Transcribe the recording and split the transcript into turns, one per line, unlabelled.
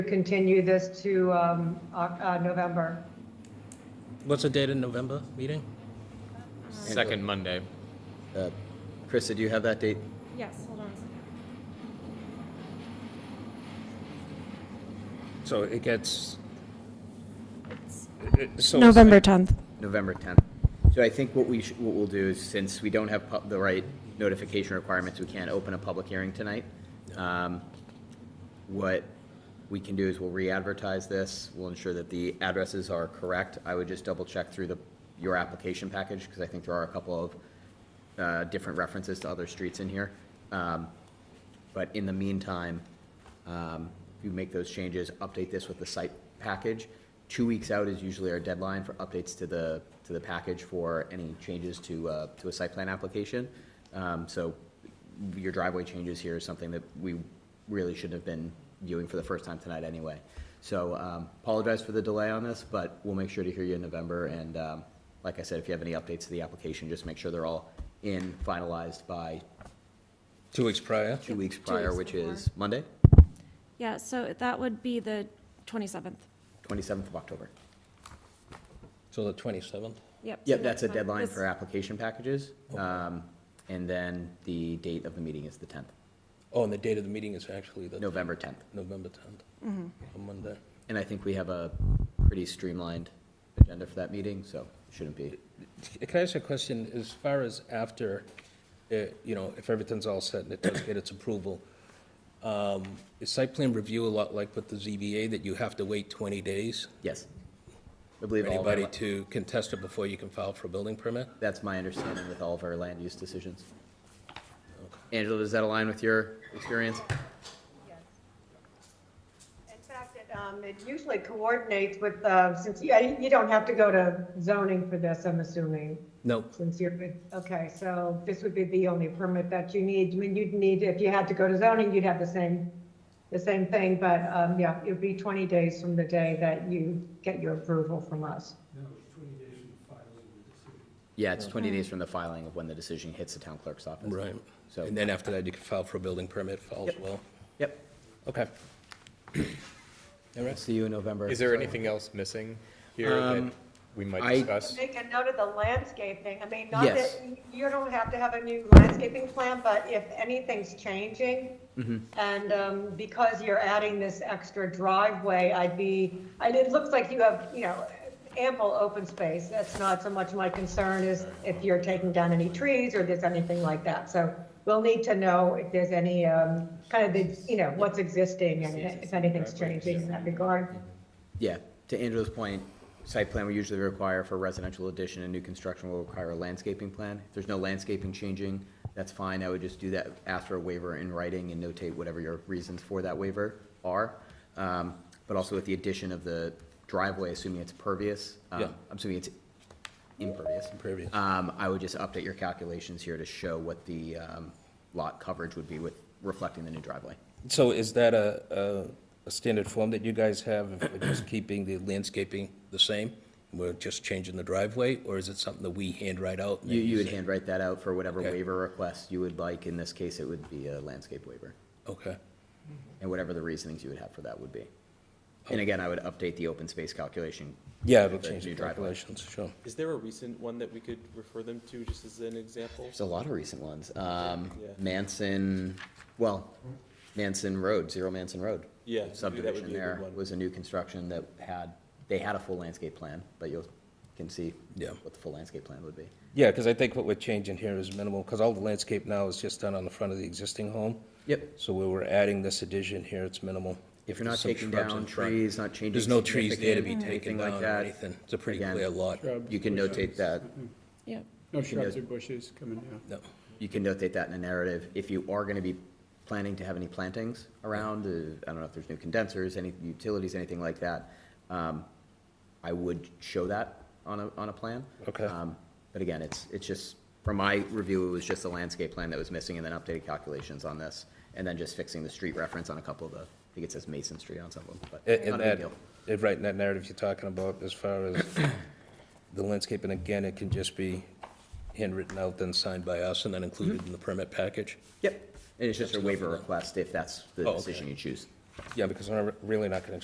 continue this to um, Oc- uh, November.
What's the date in November meeting?
Second Monday.
Uh, Krista, do you have that date?
Yes, hold on a second.
So it gets. so-
November 10th.
November 10th. So I think what we, sh- what we'll do is, since we don't have pu- the right notification requirements, we can't open a public hearing tonight. Um, What we can do is we'll re-advertise this, we'll ensure that the addresses are correct. I would just double-check through the, your application package, because I think there are a couple of uh, different references to other streets in here. Um, But in the meantime, um, if you make those changes, update this with the site package. Two weeks out is usually our deadline for updates to the, to the package for any changes to, uh, to a site plan application. Um, So your driveway changes here is something that we really should have been viewing for the first time tonight anyway. So um, apologize for the delay on this, but we'll make sure to hear you in November. And um, like I said, if you have any updates to the application, just make sure they're all in, finalized by
Two weeks prior.
two weeks
two
prior, which
weeks before.
is Monday,
Yeah, so that would be the 27th.
27th of October.
So the 27th.
Yep.
Yep, that's a
fine.
deadline
This-
for application packages. Um, And then the date of the meeting is the 10th,
Oh, and the date of the meeting is actually the
November 10th.
November 10th, a Monday.
And I think we have a pretty streamlined agenda for that meeting, so it shouldn't be.
Can I ask you a question? As far as after, uh, you know, if everything's all set and it does get its approval, um, is site plan review a lot like with the ZBA that you have to wait 20 days
Yes. I
for
believe all of our,
anybody
la-
to contest it before you can file for a building permit?
that's my understanding with all of our land use decisions. Angela, does that align with your experience?
In fact, it, um, it usually coordinates with, uh, since you, you don't have to go to zoning for this, I'm assuming,
No,
since you're, okay, so this would be the only permit that you need. I mean, you'd need, if you had to go to zoning, you'd have the same, the same thing, but um, yeah, it would be 20 days from the day that you get your approval from us.
No, it's twenty days from filing the decision.
Yeah, it's 20 days from the filing of when the decision hits the town clerk's office.
right.
So-
And then after that, you can file for a building permit if all's well.
Yep.
Okay. All right.
See you in November.
Is there anything else missing here that
Um,
we might
I-
discuss?
Make a note of the landscaping. I mean, not
Yes.
that, you don't have to have a new landscaping plan, but if anything's changing, and um, because you're adding this extra driveway, I'd be, and it looks like you have, you know, ample open space. That's not so much my concern is if you're taking down any trees or there's anything like that. So we'll need to know if there's any, um, kind of the, you know, what's existing and if anything's changing in that regard.
Yeah, to Angela's point, site plan we usually require for residential addition and new construction will require a landscaping plan. If there's no landscaping changing, that's fine, I would just do that, ask for a waiver in writing and notate whatever your reasons for that waiver are. Um, But also with the addition of the driveway, assuming it's pervious, um,
Yeah.
I'm assuming it's impervious.
Impervious.
Um, I would just update your calculations here to show what the um, lot coverage would be with, reflecting the new driveway.
So is that a, a- a standard form that you guys have, if we're just keeping the landscaping the same? We're just changing the driveway, or is it something that we hand write out? and
You,
then
you would
say-
handwrite that out for whatever
Okay.
waiver request you would like. In this case, it would be a landscape waiver,
Okay,
and whatever the reasonings you would have for that would be. And again, I would update the open space calculation.
yeah, it'll
with
change the
new driveway.
calculations, sure.
Is there a recent one that we could refer them to, just as an example?
There's a lot of recent ones. Um,
Yeah.
Manson, well, Manson Road, Zero Manson Road.
Yeah, maybe that would
Subdivision
be a good
there
one.
was a new construction that had, they had a full landscape plan, but you can see
Yeah.
what the full landscape plan would be.
Yeah, because I think what we're changing here is minimal, because all the landscape now is just done on the front of the existing home.
Yep.
So where we're adding this addition here, it's minimal.
If you're not
There's some
taking
shrubs in
down
front.
trees, not changing
There's no trees there to be
significant,
taken
anything like
down or
that,
anything. It's a pretty
again,
clear lot.
You can notate that.
Yep.
No shrubs or bushes coming down.
No.
You can notate that in a narrative. If you are gonna be planning to have any plantings around, uh, I don't know if there's new condensers, any utilities, anything like that, um, I would show that on a, on a plan.
Okay.
Um, But again, it's, it's just, from my review, it was just the landscape plan that was missing and then updated calculations on this. And then just fixing the street reference on a couple of the, I think it says Mason Street on some of them, but
And- And
not a big
that,
deal.
if right, in that narrative you're talking about, as far as the landscape, and again, it can just be handwritten out, then signed by us, and then
Mm-hmm.
included in the permit package?
Yep, and it's just a waiver request if that's the
Oh, okay.
decision you choose.
Yeah, because we're really not gonna